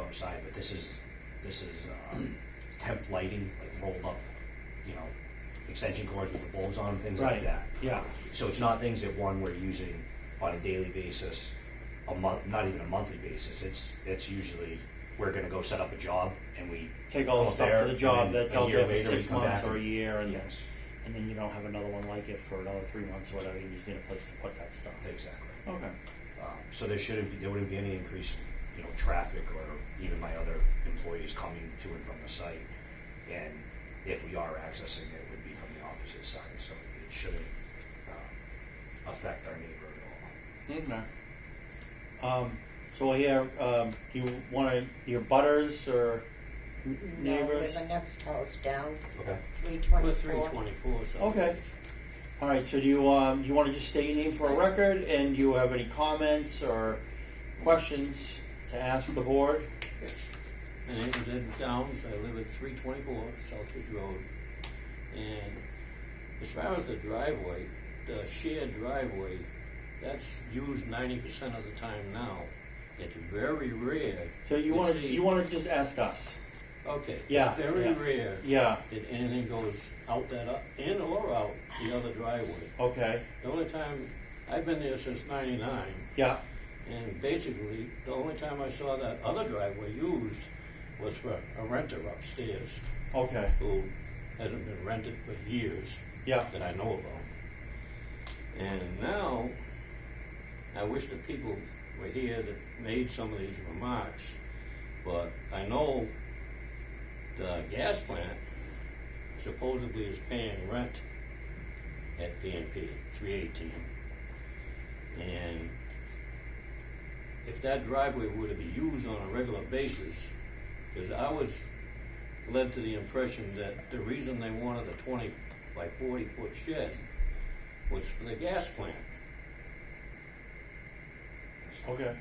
other side, but this is, this is uh, temp lighting, like rolled up, you know, extension cords with the bulbs on, things like Right, that. yeah, So it's not things that one we're using on a daily basis, a month, not even a monthly basis. It's it's usually we're gonna go set up a job and we take all go the up stuff there, for the and job then that's a out year there for later we six come months back or a and- year, and, Yes, and then you don't have another one like it for another three months or whatever, you just need a place to put that stuff. exactly. Okay. Um, so there shouldn't be there wouldn't be any increase, you know, traffic or even my other employees coming to and from the site. And if we are accessing it, it would be from the opposite side, so it shouldn't um, affect our neighborhood at all. Okay. Um, so here, um, do you want to, your butters or n- No, we're neighbors? the next house down, Okay. three We're twenty-four. 324, so. Okay. All right, so do you, um, you want to just state your name for a record and you have any comments or questions to ask the board? My name is Ed Downs, I live at 324 Southridge Road. And as far as the driveway, the shared driveway, that's used 90% of the time now. It's very rare. So you want to, see- you want to just ask us? Okay. Yeah, Very yeah. rare Yeah, that anything goes out that, o- in or out the other driveway. okay, The only time, I've been there since 99. yeah, And basically, the only time I saw that other driveway used was for a renter upstairs okay, who hasn't been rented for years yeah, that I know about. And now, I wish the people were here that made some of these remarks, but I know the gas plant supposedly is paying rent at PNP, three eighteen. And if that driveway were to be used on a regular basis, because I was led to the impression that the reason they wanted a twenty by forty foot shed was for the gas plant. okay,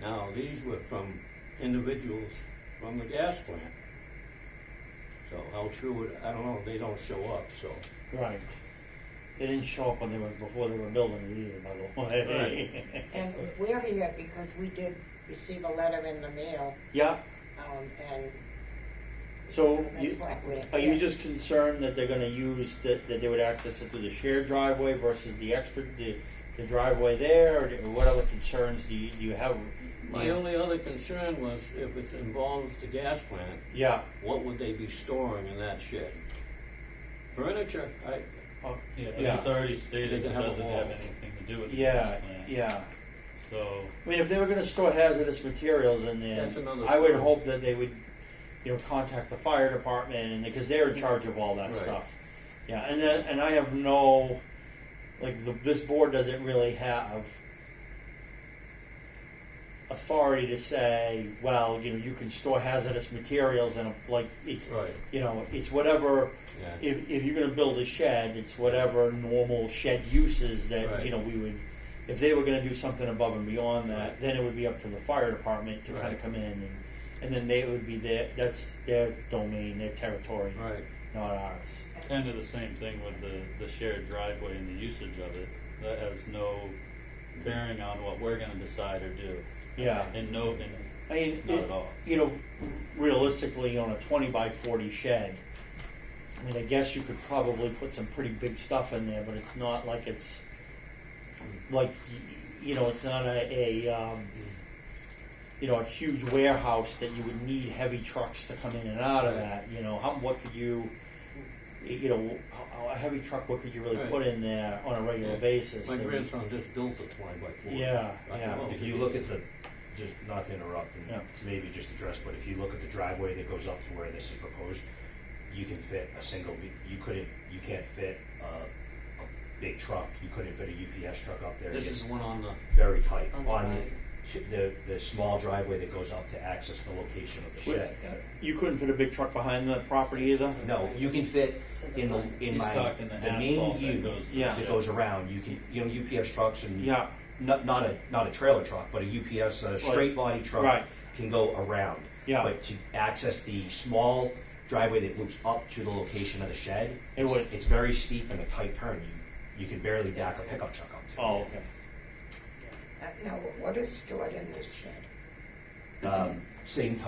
Now, these were from individuals from the gas plant. So how true it, I don't know, they don't show up, so. right. They didn't show up when they were, before they were building it either, by the way. And we're here because we did receive a letter in the mail, Yeah, um, and so you, that's why we're. Are you here. just concerned that they're gonna use, that, that they would access it through the shared driveway versus the extra, the, the driveway there, or do- what other concerns do you, do you have? My only other concern was if it involves the gas plant, Yeah, what would they be storing in that shed? Furniture, I, Oh, Yeah, it Yeah. was already They stated can it have a doesn't wall. have anything to do with the yeah, gas plant. yeah. So, I mean, if they were gonna store hazardous materials in there, That's another I would story. hope that they would, you know, contact the fire department and, because they're in charge of all that Right. stuff. Yeah, and then, and I have no, like, the, this board doesn't really have authority to say, well, you know, you can store hazardous materials and, like, it's, right, you know, it's whatever, yeah, if, if you're gonna build a shed, it's whatever normal shed uses that, you Right. know, we would, if they were gonna do something above and beyond that, Right. then it would be up to the fire department to kinda Right. come in and, and then they would be their, that's their domain, their territory, right, not ours. kind of the same thing with the, the shared driveway and the usage of it. That has no bearing on what we're going to decide or do. Yeah, And no, and I mean, not it- at all. you know, realistically, on a twenty by forty shed, I mean, I guess you could probably put some pretty big stuff in there, but it's not like it's like y- you know, it's not a, a um, you know a huge warehouse that you would need heavy trucks to come in and out of that. You know, how what could you you know how, how- a heavy truck what could you really Right. put in there on a regular Yeah. basis? my that would- grandson just built a twenty by forty. Yeah, I yeah. don't know If you look at the, just not to interrupt and Yeah. maybe just address, but if you look at the driveway that goes up to where this is proposed, you can fit a single, ve- you couldn't, you can't fit a, a big truck, you couldn't fit a UPS truck up there. This It's is one on the, very tight Oh on the on right. the, the small driveway that goes up to access the location of the shed. you couldn't fit a big truck behind the property either. No, you can fit To the in the, right. in he's my, talking the, the main asphalt that U goes to Yeah. the shed. that goes around, you can, you know, UPS trucks and Yeah. not, not a not a trailer truck, but a UPS uh, straight body truck Right. can go around. Yeah. But to access the small driveway that loops up to the location of the shed, It it's, would- it's very steep and a tight turn. You you can barely back a pickup truck up. To. Oh, okay. Uh, Now, what is stored in this shed? Oh. Um, same type